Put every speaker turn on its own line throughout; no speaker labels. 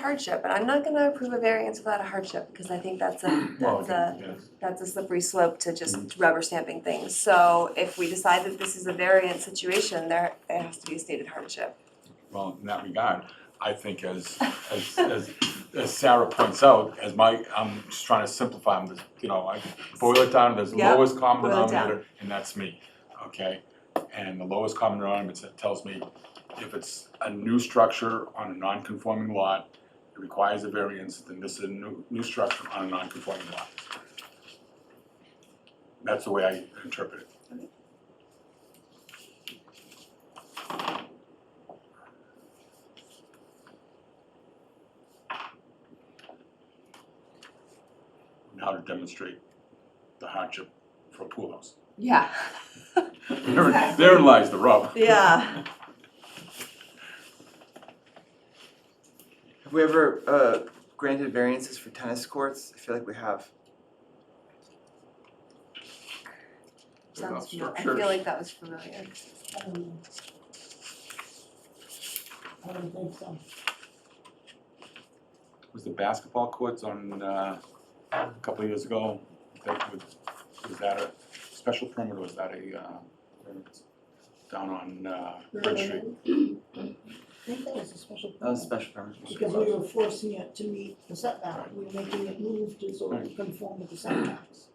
hardship, and I'm not gonna approve a variance without a hardship, because I think that's a, that's a, that's a slippery slope to just rubber stamping things. So if we decide that this is a variance situation, there, there has to be a stated hardship.
Well, in that regard, I think as, as, as, as Sarah points out, as my, I'm just trying to simplify them, this- you know, I boil it down to the
Yeah,
lowest common
boil it down.
denominator, and that's me, okay? And the lowest common denominator that tells me if it's a new structure on a non-conforming lot, it requires a variance, then this is a new, new structure on a non-conforming lot. That's the way I interpret it. and how to demonstrate the hardship for a pool house.
Yeah.
There- Therein lies the rub.
Yeah.
Have we ever uh, granted variances for tennis courts? I feel like we have.
Sounds familiar, I feel like that was familiar.
I don't know. I don't think so.
Was the basketball courts on, uh, a couple of years ago, that was, was that a special permit or was that a, uh, down on, uh, Bridge Street?
I think that was a special
That was a
permit,
special permit.
because we were forcing it to meet the setback,
Right.
we were making it move to sort of conform with the setbacks.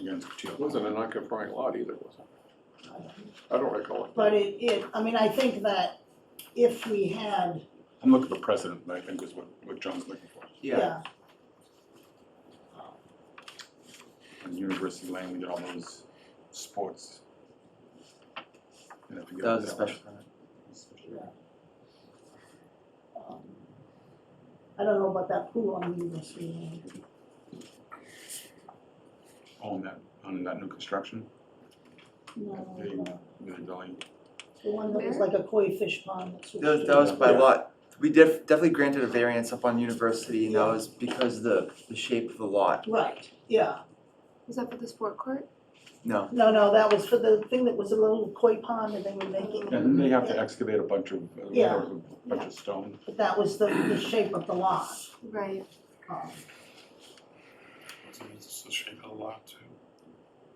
Against Teal.
It wasn't a non-conforming lot either, was it?
I don't know.
I don't recall.
But it, it, I mean, I think that if we had,
I'm looking for precedent, I think is what, what John's looking for.
Yeah.
yeah,
On University Lane, we did all those sports. And I forget
That was a
what
special permit.
um, I don't know about that pool on University Lane.
Oh, On that, on that new construction,
No,
They-
no,
with the building.
the one that was like a koi fish pond. that's what
That was,
we
that was by
Yeah.
lot. We def- definitely granted a variance up on university, and that was because of the, the shape of the lot.
did. Right, yeah,
Was that for the sport court?
No.
no, no, that was for the thing that was a little koi pond and they were making,
And then they have to excavate a bunch of,
Yeah.
a bunch of stone.
but that was the, the shape of the lot.
Right.
um,
It's the shape of the lot too.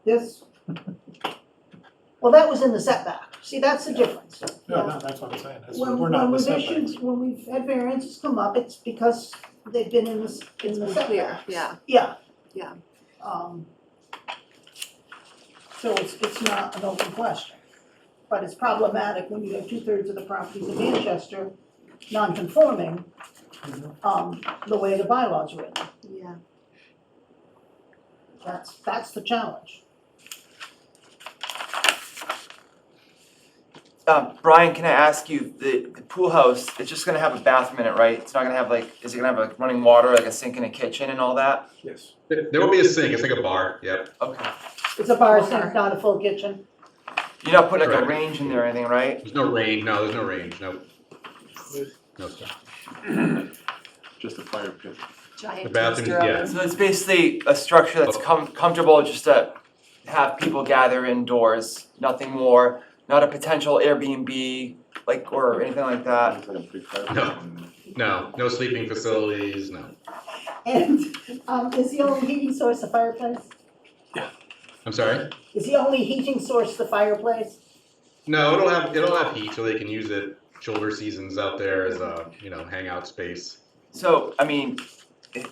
This, well, that was in the setback, see, that's the difference.
No, no, that's what I'm saying, that's,
When,
we're not
when
with
we've
setbacks.
issued, when we've had variances come up, it's because they've been in this, in the setback.
Clear, yeah,
Yeah.
Yeah.
Um. So it's, it's not an open question, but it's problematic when you have two-thirds of the properties in Manchester non-conforming, um, the way the bylaws are written.
yeah.
That's, that's the challenge.
Um, Brian, can I ask you the, the pool house? It's just gonna have a bathroom in it, right? It's not gonna have like, is it gonna have like running water, like a sink and a kitchen and all that?
Yes.
There there will be a sink, it's like a bar, yep.
Okay.
It's a bar,
Bar.
sink, not a full kitchen.
You're not putting like a
Correct.
range in there or anything, right?
There's no range, no, there's no range, no. No stuff.
Just a fire pit.
Giant
The bathroom,
toaster
yeah.
oven.
So it's basically a structure that's com- comfortable just to have people gather indoors, nothing more, not a potential Airbnb, like, or anything like that.
It's like a big fire pit.
No. No, no sleeping facilities, no.
And, um, is the only heating source the fireplace?
I'm sorry?
Is the only heating source the fireplace?
No, it'll have, it'll have heat so they can use it shoulder seasons out there as a, you know, hangout space.
So, I mean, it,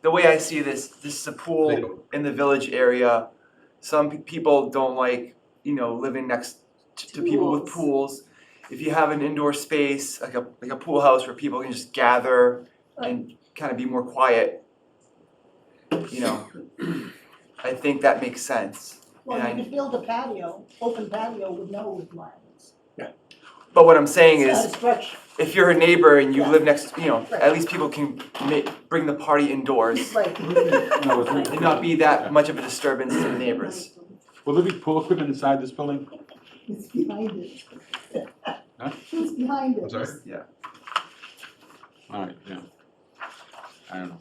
the way I see this, this is a pool
Legal.
in the village area. Some pe- people don't like, you know, living next t- to people with pools. If you have an indoor space, like a, like a pool house where people can just gather and kind of be more quiet, you know, I think that makes sense. And
Well,
I-
you could build a patio, open patio with no requirements.
But what I'm saying
It's not
is,
a structure,
if you're a neighbor and you
Yeah.
live next, you know,
Right.
at least people can ma- bring the party indoors
right.
No, it's-
and not be that much of a disturbance to the neighbors.
Will there be pool equipment inside this building?
It's behind it.
Huh?
It's behind it.
I'm sorry?
Alright, yeah. I don't know.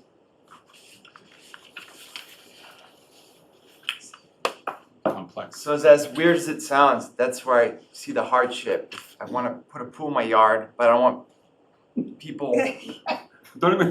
Complex.
So it's as weird as it sounds, that's where I see the hardship. If I wanna put a pool in my yard, but I don't want people
Don't even